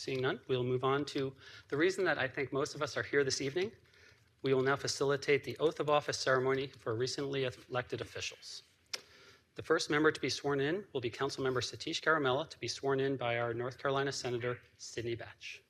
Seeing none, we'll move on to the reason that I think most of us are here this evening. We will now facilitate the oath of office ceremony for recently elected officials. The first member to be sworn in will be Councilmember Satish Caramella, to be sworn in by our North Carolina Senator Sidney Batch.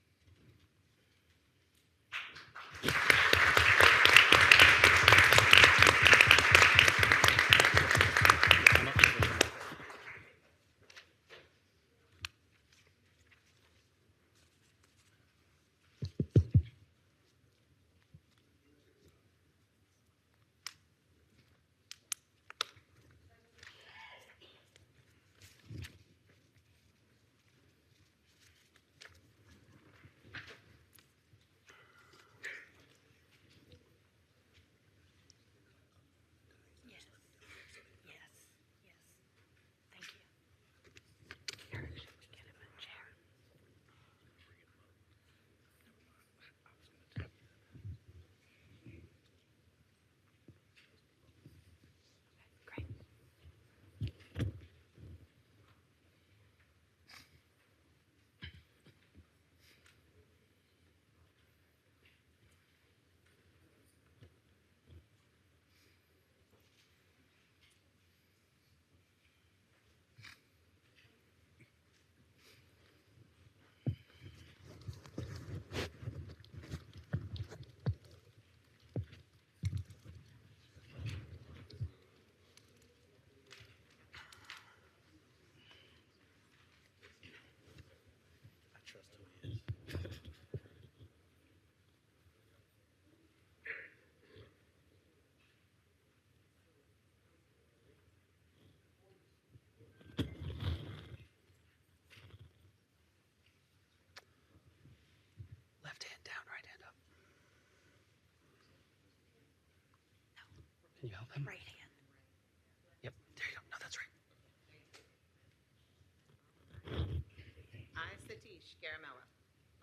Yes. Yes. Yes. Thank you. Get him a chair. Great. Left hand down, right hand up. Can you help him? Right hand. Yep, there you go. No, that's right. I, Satish Garamella,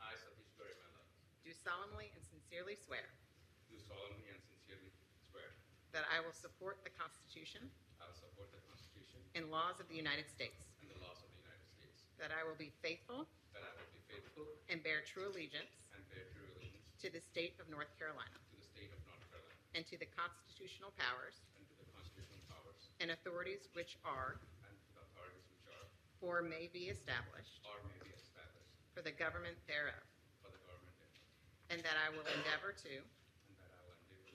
I, Satish Garimella, do solemnly and sincerely swear uh, do solemnly and sincerely swear that I will support the Constitution I will support the Constitution and laws of the United States, and the laws of the United States, that I will be faithful that I will be faithful and bear true allegiance and bear true allegiance to the state of North Carolina to the state of North Carolina and to the constitutional powers and to the constitutional powers and authorities which are and to the authorities which are or may be established or may be established for the government thereof, for the government thereof, and that I will endeavor to and that I will endeavor to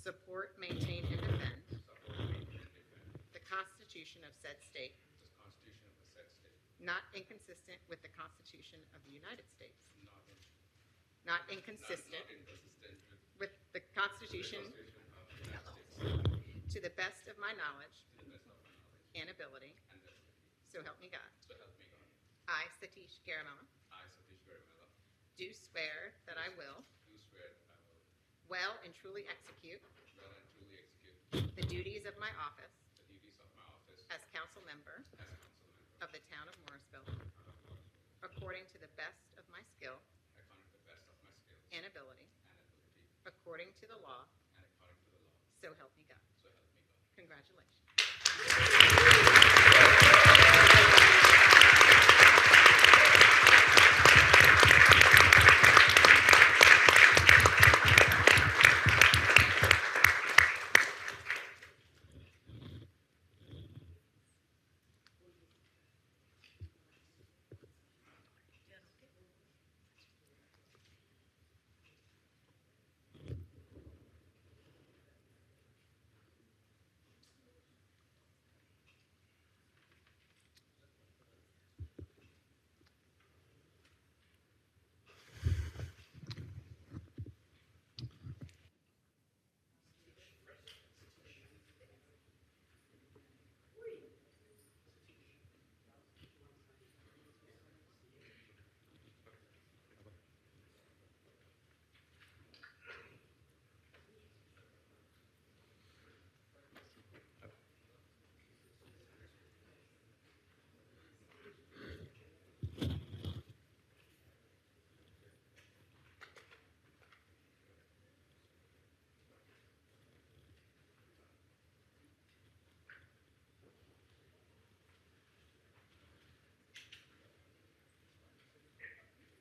support, maintain, and defend support, maintain, and defend the Constitution of said state, the Constitution of the said state, not inconsistent with the Constitution of the United States, not in- not not inconsistent not inconsistent with with the the Constitution Constitution of the United States, To the best of my knowledge to the best of my knowledge and ability, and the ability, so help me God. so help me God. I, Satish Garamella, I, Satish Garimella, do swear that I will do swear that I will well and truly execute well and truly execute the duties of my office the duties of my office as as council member council member of the town of Morrisville, according to the best of my skill according to the best of my skill and ability, and ability according to the law, and according to the law, so help me God. so help me God. Congratulations.